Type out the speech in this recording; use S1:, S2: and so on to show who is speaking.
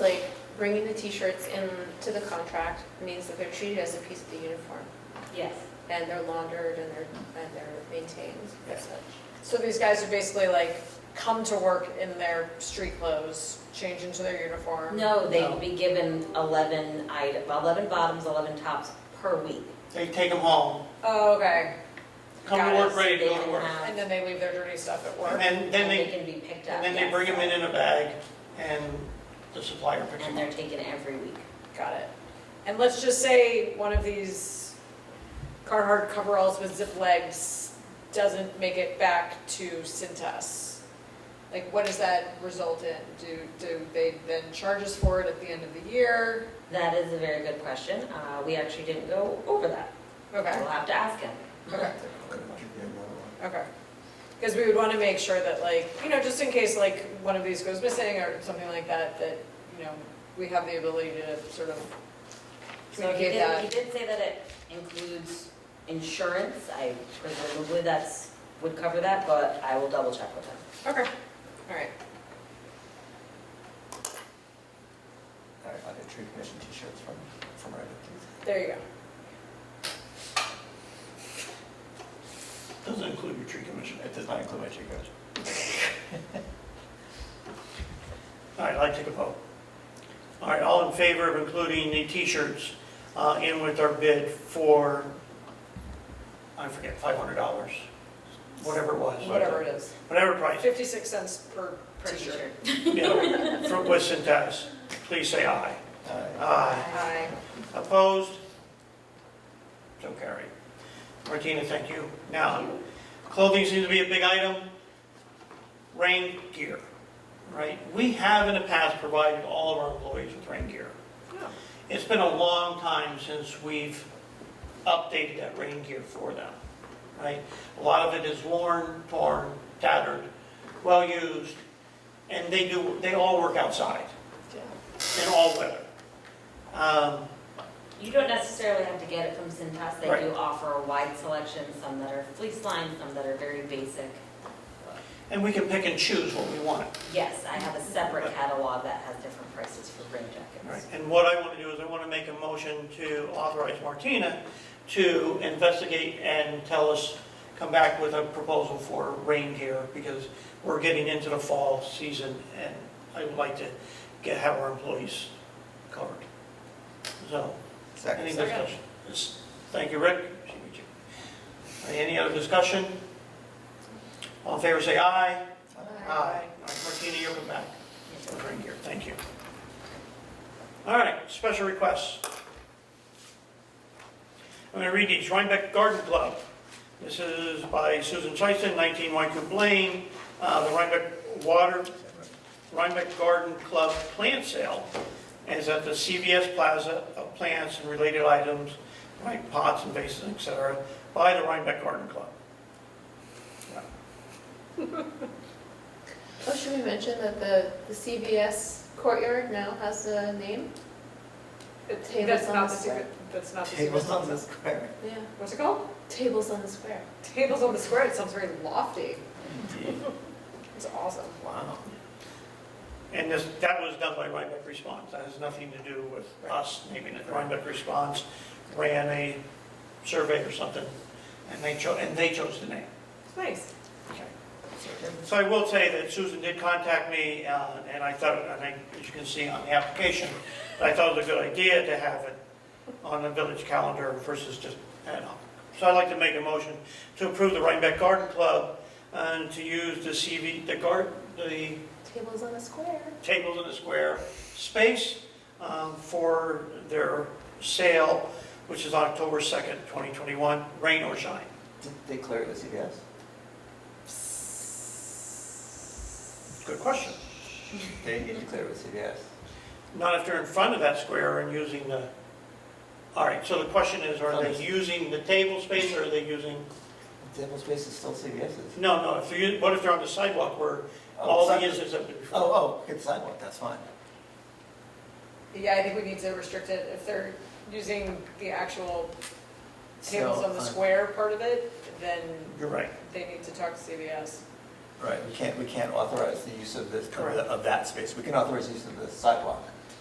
S1: Like, bringing the t-shirts in to the contract means that they're treated as a piece of the uniform,
S2: Yes.
S1: and they're laundered and they're, and they're maintained as such.
S3: So these guys are basically like, come to work in their street clothes, change into their uniform?
S2: No, they
S3: No.
S2: would be given 11 item, 11 bottoms, 11 tops per week.
S4: They take them home,
S3: Oh, okay.
S4: come
S3: Got
S4: to
S3: it.
S4: work ready to
S2: They
S4: go to
S2: can
S4: work.
S2: have-
S3: And then they leave their dirty stuff at
S4: And
S3: work?
S4: then, then
S2: and
S4: they,
S2: can be picked up.
S4: and then they
S2: yes.
S4: bring them in in a bag and the supplier picks
S2: And
S4: them
S2: they're
S4: up.
S2: taken every week.
S3: Got it. And let's just say one of these Carhartt coveralls with zip legs doesn't make it back to Cintas. Like, what does that result in? Do, do they then charge us for it at the end of the year?
S2: That is a very good question. Uh, We actually didn't go over that.
S3: Okay,
S2: We'll have to ask him.
S3: okay. Okay. Because we would want to make sure that like, you know, just in case like one of these goes missing or something like that, that, you know, we have the ability to sort of
S2: So he
S3: communicate
S2: did, he
S3: that.
S2: did say that it includes insurance. I presumably that's, would cover that, but I will double check with him.
S3: Okay, all right.
S5: I I get tree commission t-shirts from, from Reddit, please.
S3: There you go.
S4: Doesn't include your tree commission.
S5: It does not include my tree commission.
S4: All right, I'd like to take a vote. All right, all in favor of including the t-shirts uh, in with our bid for, I forget, $500, whatever it was.
S3: Whatever it is.
S4: Whatever price.
S3: 56 cents per t-shirt.
S2: T-shirt.
S4: Yeah, From West Centas, please say aye.
S5: Uh,
S4: Aye.
S3: Aye.
S4: Opposed? So carried. Martina, thank you. Now, clothing seems to be a big item. Rain gear, right? We have in the past provided all of our employees with rain gear.
S3: Yeah.
S4: It's been a long time since we've updated that rain gear for them, right? A lot of it is worn, torn, tattered, well-used, and they do, they all work outside in all weather. Um,
S2: You don't necessarily have to get it from Cintas. They
S4: Right.
S2: do offer a wide selection, some that are fleece lined, some that are very basic.
S4: And we can pick and choose what we want.
S2: Yes, I have a separate catalog that has different prices for rain jackets.
S4: And what I want to do is I want to make a motion to authorize Martina to investigate and tell us, come back with a proposal for rain gear because we're getting into the fall season and I would like to get, have our employees covered. So, any
S5: Second.
S4: discussion? Yes. Thank you, Rick. Any other discussion? All in favor, say aye.
S1: Oh,
S4: Aye. All right, Martina, you'll come back. I'll bring here, thank you. All right, special requests. I'm going to read these. Rhinebeck Garden Club. This is by Susan Tyson, 19 Wykoop Lane. Uh, The Rhinebeck Water, Rhinebeck Garden Club plant sale is at the CVS Plaza of plants and related items, like pots and vases, et cetera, by the Rhinebeck Garden Club.
S1: Oh, should we mention that the, the CVS courtyard now has a name? Tables
S3: That's
S1: on
S3: not
S1: the
S3: the
S1: square.
S3: secret, that's not the secret.
S5: Tables on the square.
S1: Yeah,
S3: What's it called?
S1: tables on the square.
S3: Tables on the square, it sounds very lofty. It's awesome.
S5: Wow.
S4: And this, that was done by Rhinebeck Response. That has nothing to do with us naming it. Rhinebeck Response ran a survey or something, and they chose, and they chose the name.
S3: It's nice.
S4: So I will say that Susan did contact me, uh, and I thought, and I, as you can see on the application, I thought it was a good idea to have it on the village calendar versus just ad hoc. So I'd like to make a motion to approve the Rhinebeck Garden Club and to use the CV, the guard, the
S1: Tables on the square.
S4: tables in a square space um, for their sale, which is October 2nd, 2021, rain or shine.
S5: Did they clear the CVS?
S4: Good question.
S5: They need to clear the CVS.
S4: Not if they're in front of that square and using the, all right, so the question is, are they using the table space or are they using,
S5: Table space is still CVS's.
S4: no, no, if they're, what if they're on the sidewalk where all the users have been?
S5: Oh, oh, it's sidewalk, that's fine.
S3: Yeah, I think we need to restrict it if they're using the actual tables
S5: So,
S3: on the
S5: uh,
S3: square part of it, then
S4: You're right.
S3: they need to talk to CVS.
S5: Right, we can't, we can't authorize the use of this, of
S4: Correct.
S5: the- of that space. We can authorize the use of the sidewalk.